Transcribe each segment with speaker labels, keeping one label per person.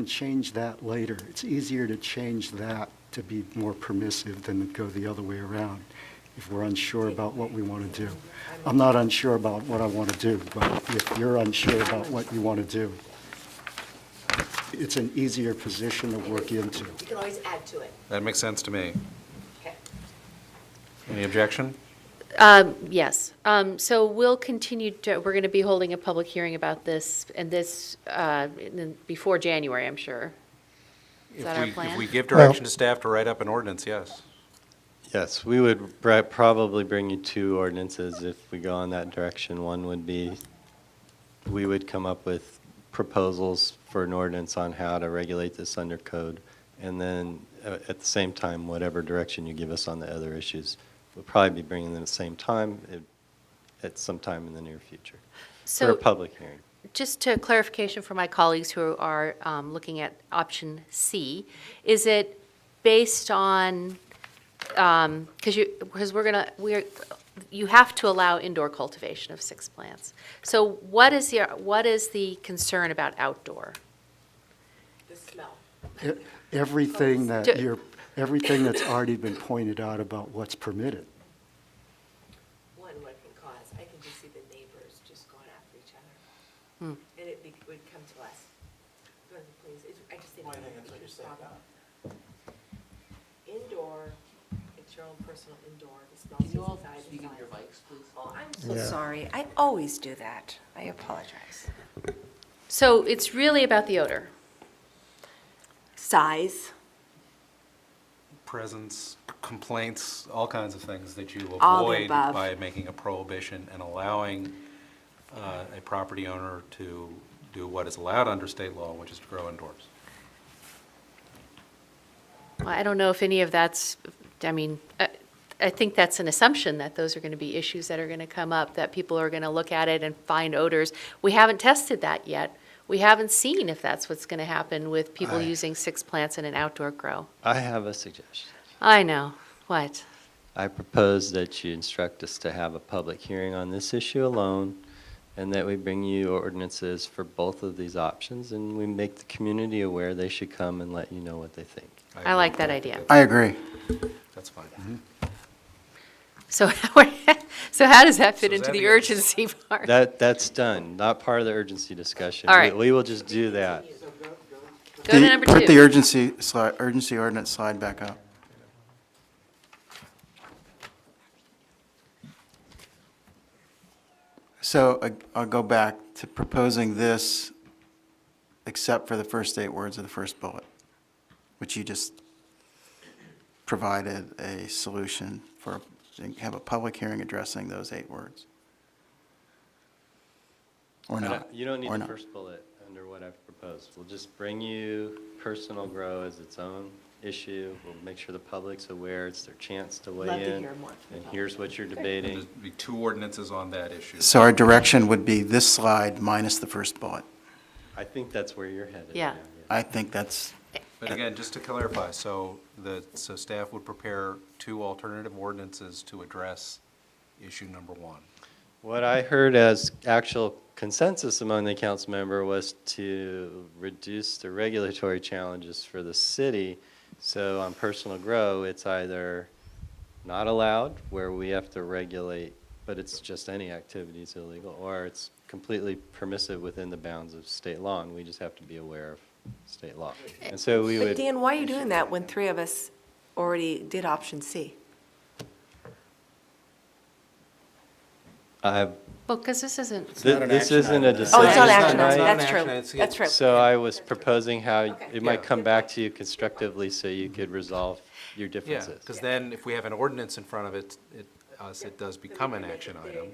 Speaker 1: And change that later. It's easier to change that to be more permissive than go the other way around if we're unsure about what we want to do. I'm not unsure about what I want to do, but if you're unsure about what you want to do, it's an easier position to work into.
Speaker 2: You can always add to it.
Speaker 3: That makes sense to me.
Speaker 2: Okay.
Speaker 3: Any objection?
Speaker 4: Um, Yes. Um, So we'll continue, to- we're going to be holding a public hearing about this, and this, uh, in the- before January, I'm sure. Is
Speaker 3: If
Speaker 4: that our
Speaker 3: we- If we
Speaker 4: plan?
Speaker 3: give direction to staff to write up an ordinance, yes.
Speaker 5: Yes, we would bri- probably bring you two ordinances if we go in that direction. One would be, we would come up with proposals for an ordinance on how to regulate this under code. And then, uh, at the same time, whatever direction you give us on the other issues, we'll probably be bringing them at the same time, it- at some time in the near future, for a
Speaker 4: So
Speaker 5: public hearing.
Speaker 4: just to clarification for my colleagues who are um, looking at option C, is it based on, because you, because we're going to, we're, you have to allow indoor cultivation of six plants. So what is the, what is the concern about outdoor?
Speaker 2: The smell.
Speaker 1: E- Everything that
Speaker 4: Do-
Speaker 1: you're, everything that's already been pointed out about what's permitted.
Speaker 2: One, what it can cause. I can just see the neighbors just going after each other.
Speaker 6: Hmm.
Speaker 2: And it be- would come to us. Go to the police. It's- I just think. Well, I think that's what you're saying Indoor, it's your own personal indoor, the smell is inside. Can you all speak into your mics, please? Oh, I'm so
Speaker 6: So sorry. I always do that. I apologize.
Speaker 4: So it's really about the odor.
Speaker 6: Size.
Speaker 3: Presence, complaints, all kinds of things that you
Speaker 6: All the
Speaker 3: avoid
Speaker 6: above.
Speaker 3: by making a prohibition and allowing uh, a property owner to do what is allowed under state law, which is to grow indoors.
Speaker 4: Well, I don't know if any of that's, I mean, I- I think that's an assumption that those are going to be issues that are going to come up, that people are going to look at it and find odors. We haven't tested that yet. We haven't seen if that's what's going to happen with people
Speaker 5: I-
Speaker 4: using six plants in an outdoor grow.
Speaker 5: I have a suggestion.
Speaker 4: I know, what?
Speaker 5: I propose that you instruct us to have a public hearing on this issue alone, and that we bring you ordinances for both of these options, and we make the community aware they should come and let you know what they think.
Speaker 4: I like that idea.
Speaker 7: I agree.
Speaker 3: That's fine.
Speaker 4: So, so how does that fit
Speaker 3: So is
Speaker 4: into
Speaker 3: that
Speaker 4: the
Speaker 3: the-
Speaker 4: urgency part?
Speaker 5: That, that's done, not part of the urgency discussion.
Speaker 4: All right.
Speaker 5: We- We will just do that.
Speaker 4: Go to
Speaker 7: The-
Speaker 4: number
Speaker 7: Put the
Speaker 4: two.
Speaker 7: urgency slide, urgency ordinance slide back up. So I- I'll go back to proposing this, except for the first eight words of the first bullet, which you just provided a solution for, have a public hearing addressing those eight words. Or
Speaker 5: I don't-
Speaker 7: not.
Speaker 5: You don't need
Speaker 7: or
Speaker 5: the
Speaker 7: not.
Speaker 5: first bullet under what I've proposed. We'll just bring you personal grow as its own issue. We'll make sure the public's aware, it's their chance to weigh in.
Speaker 2: Love to hear more from the
Speaker 5: And
Speaker 2: public.
Speaker 5: here's what you're
Speaker 3: And
Speaker 5: debating.
Speaker 3: there'd be two ordinances on that issue.
Speaker 7: So our direction would be this slide minus the first bullet.
Speaker 5: I think that's where you're headed.
Speaker 4: Yeah.
Speaker 7: I think that's,
Speaker 3: But again, just to clarify, so the, so staff would prepare two alternative ordinances to address issue number one.
Speaker 5: What I heard as actual consensus among the council member was to reduce the regulatory challenges for the city. So on personal grow, it's either not allowed, where we have to regulate, but it's just any activity is illegal, or it's completely permissive within the bounds of state law, and we just have to be aware of state law. And so we
Speaker 6: But
Speaker 5: would,
Speaker 6: Dan, why are you doing that when three of us already did option C?
Speaker 5: I,
Speaker 4: Well, because this isn't,
Speaker 5: thi- this isn't a
Speaker 6: Oh,
Speaker 5: decision
Speaker 6: it's not
Speaker 3: It's not-
Speaker 6: action,
Speaker 3: it's not
Speaker 5: tonight.
Speaker 3: an
Speaker 6: that's
Speaker 3: action
Speaker 6: true.
Speaker 3: item, it's-
Speaker 6: That's true.
Speaker 5: So I was proposing how it might
Speaker 3: Yeah.
Speaker 5: come back to you constructively so you could resolve your
Speaker 3: Yeah,
Speaker 5: differences.
Speaker 3: because then if we have an ordinance in front of it, it, us, it does become an action item.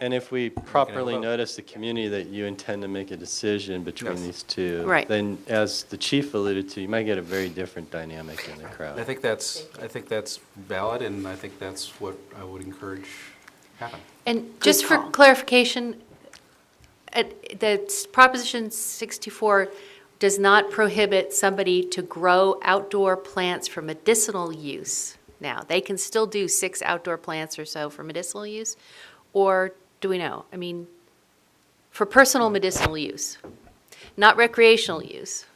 Speaker 5: And if we properly
Speaker 3: vote.
Speaker 5: notice the community that you intend to make a decision between
Speaker 3: Yes.
Speaker 5: these two,
Speaker 4: Right.
Speaker 5: then as the chief alluded to, you might get a very different dynamic in the
Speaker 3: I
Speaker 5: crowd.
Speaker 3: think that's, I think that's valid, and I think that's what I would encourage happen.
Speaker 4: and just for
Speaker 6: call.
Speaker 4: clarification, it- the s- Proposition 64 does not prohibit somebody to grow outdoor plants for medicinal use now. They can still do six outdoor plants or so for medicinal use, or do we know? I mean, for personal medicinal use, not recreational use.